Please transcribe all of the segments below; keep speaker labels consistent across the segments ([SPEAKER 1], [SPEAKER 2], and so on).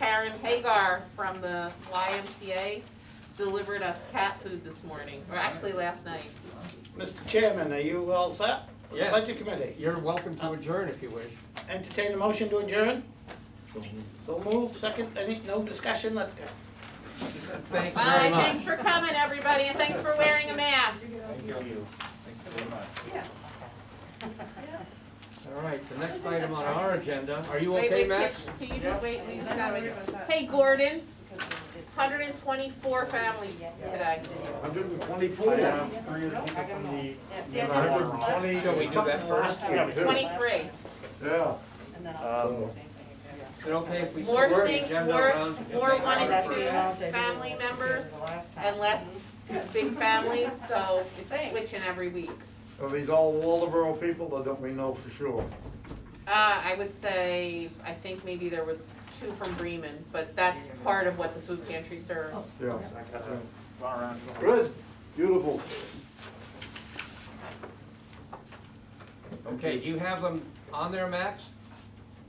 [SPEAKER 1] Karen Hagar from the YMCA delivered us cat food this morning, or actually last night.
[SPEAKER 2] Mr. Chairman, are you all set? with the
[SPEAKER 3] Yes.
[SPEAKER 2] Budget Committee,
[SPEAKER 3] You're welcome to adjourn if you wish.
[SPEAKER 2] entertain a motion to adjourn? So move, second, any, no discussion, let's go.
[SPEAKER 3] Thank you
[SPEAKER 1] Bye,
[SPEAKER 3] very much.
[SPEAKER 1] thanks for coming, everybody, and thanks for wearing a mask.
[SPEAKER 4] Thank you. Thank you very much.
[SPEAKER 3] All right, the next item on our agenda, are you
[SPEAKER 1] Wait,
[SPEAKER 3] okay,
[SPEAKER 1] wait,
[SPEAKER 3] Max?
[SPEAKER 1] can- Can you just wait, we just gotta wait. Hey, Gordon, hundred and twenty-four families today.
[SPEAKER 4] Hundred and twenty-four.
[SPEAKER 3] Shall we do that first?
[SPEAKER 1] Twenty-three.
[SPEAKER 4] Yeah.
[SPEAKER 5] And then
[SPEAKER 4] I'll do the
[SPEAKER 3] Is it okay if we
[SPEAKER 1] More
[SPEAKER 3] sort the
[SPEAKER 1] sink,
[SPEAKER 3] agenda
[SPEAKER 1] more-
[SPEAKER 3] around?
[SPEAKER 1] More one and two family members and less big families, so it's switching every week.
[SPEAKER 4] Are these all Waldeboro people or don't we know for sure?
[SPEAKER 1] Uh, I would say, I think maybe there was two from Bremen, but that's part of what the food pantry serves.
[SPEAKER 4] Yeah. Good, beautiful.
[SPEAKER 3] Okay, do you have them on there, Max?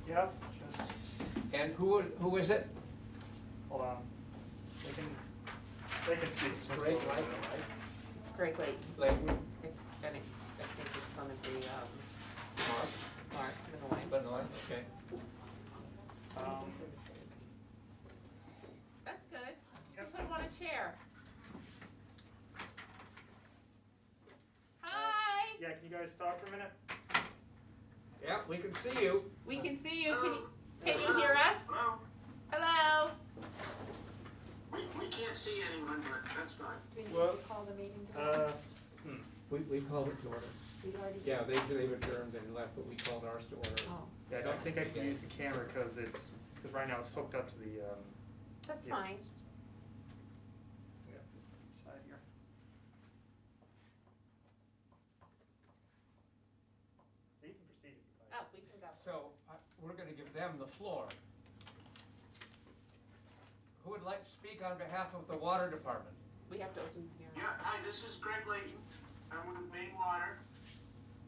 [SPEAKER 6] Yep, just,
[SPEAKER 3] And who, who is it?
[SPEAKER 6] hold on. They can, they can speak. so-
[SPEAKER 3] Great, right,
[SPEAKER 1] Great, wait,
[SPEAKER 3] right. Like,
[SPEAKER 1] I think it's gonna be, um,
[SPEAKER 3] Mark,
[SPEAKER 1] Mark, Benoit.
[SPEAKER 3] but not, okay.
[SPEAKER 6] Um,
[SPEAKER 1] That's good. Just put him on a chair. Hi,
[SPEAKER 6] Yeah, can you guys stop for a minute?
[SPEAKER 3] Yeah, we can see you.
[SPEAKER 1] we can see you. Can you, can you hear us?
[SPEAKER 7] Hello?
[SPEAKER 1] Hello?
[SPEAKER 7] We, we can't see anyone, but that's fine.
[SPEAKER 6] Well, uh,
[SPEAKER 3] We, we called it to order. Yeah, they, they've adjourned and left, but we called ours to order.
[SPEAKER 1] Oh.
[SPEAKER 6] yeah, I don't think I can use the camera because it's, because right now it's hooked up to the, um,
[SPEAKER 1] That's
[SPEAKER 6] Yeah.
[SPEAKER 1] fine.
[SPEAKER 6] side here. So you can proceed if you'd like.
[SPEAKER 1] Oh, we can go.
[SPEAKER 3] So, I- we're gonna give them the floor. Who would like to speak on behalf of the water department?
[SPEAKER 1] We have to open the
[SPEAKER 7] Yeah,
[SPEAKER 1] hearing.
[SPEAKER 7] hi, this is Greg Layton. I'm with Maine Water.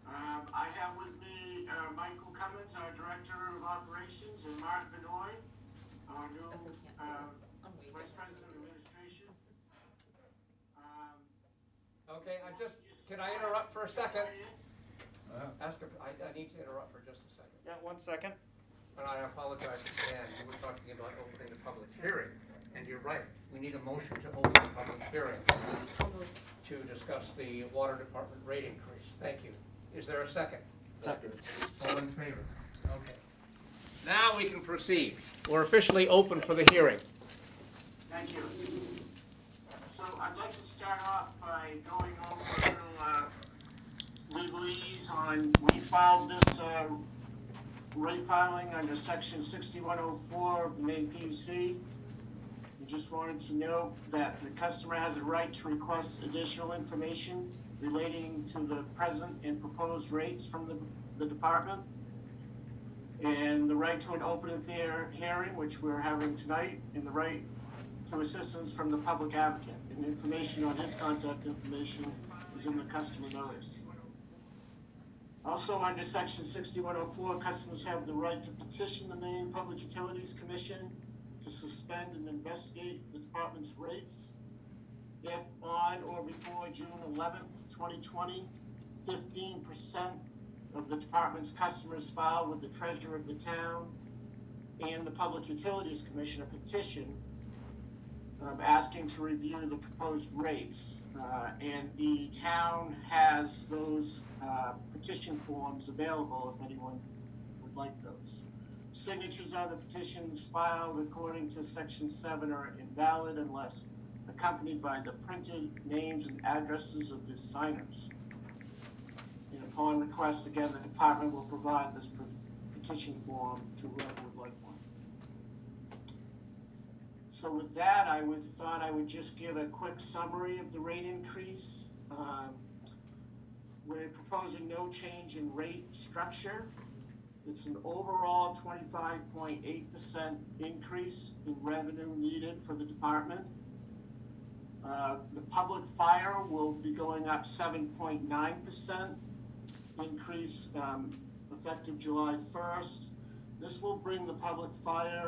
[SPEAKER 7] Um, I have with me, uh, Michael Cummins, our Director of Operations, and Mark Benoit, our new,
[SPEAKER 1] If we can't see
[SPEAKER 7] um,
[SPEAKER 1] us, I'm waiting.
[SPEAKER 7] Vice President of Administration. Um,
[SPEAKER 3] Okay, I just, can I interrupt for a second? Ask if, I, I need to interrupt for just a second.
[SPEAKER 6] Yeah, one second.
[SPEAKER 3] And I apologize again, you were talking about opening the public hearing, and you're right, we need a motion to open the public hearing to discuss the water department rate increase. Thank you. Is there a second?
[SPEAKER 4] Second.
[SPEAKER 3] All in favor? Okay. Now we can proceed. We're officially open for the hearing.
[SPEAKER 7] Thank you. So I'd like to start off by going over a little uh, legalese on, we filed this uh, rate filing under section 6104 of the Maine PUC. We just wanted to know that the customer has a right to request additional information relating to the present and proposed rates from the- the department. And the right to an open and fair hearing, which we're having tonight, and the right to assistance from the public advocate, and information on his contact information is in the customer notice. Also, under section sixty-one oh four, customers have the right to petition the Maine Public Utilities Commission to suspend and investigate the department's rates if on or before June eleventh, 2020, 15 percent of the department's customers file with the treasurer of the town and the Public Utilities Commission a petition um, asking to review the proposed rates. Uh, and the town has those, uh, petition forms available if anyone would like those. Signatures on the petitions filed according to section seven are invalid unless accompanied by the printed names and addresses of the signers. And upon request, again, the department will provide this pe- petition form to whoever would like one. So with that, I would, thought I would just give a quick summary of the rate increase. Um, We're proposing no change in rate structure. It's an overall twenty-five point eight percent increase in revenue needed for the department. Uh, The public fire will be going up seven point nine percent increase um, effective July first. This will bring the public fire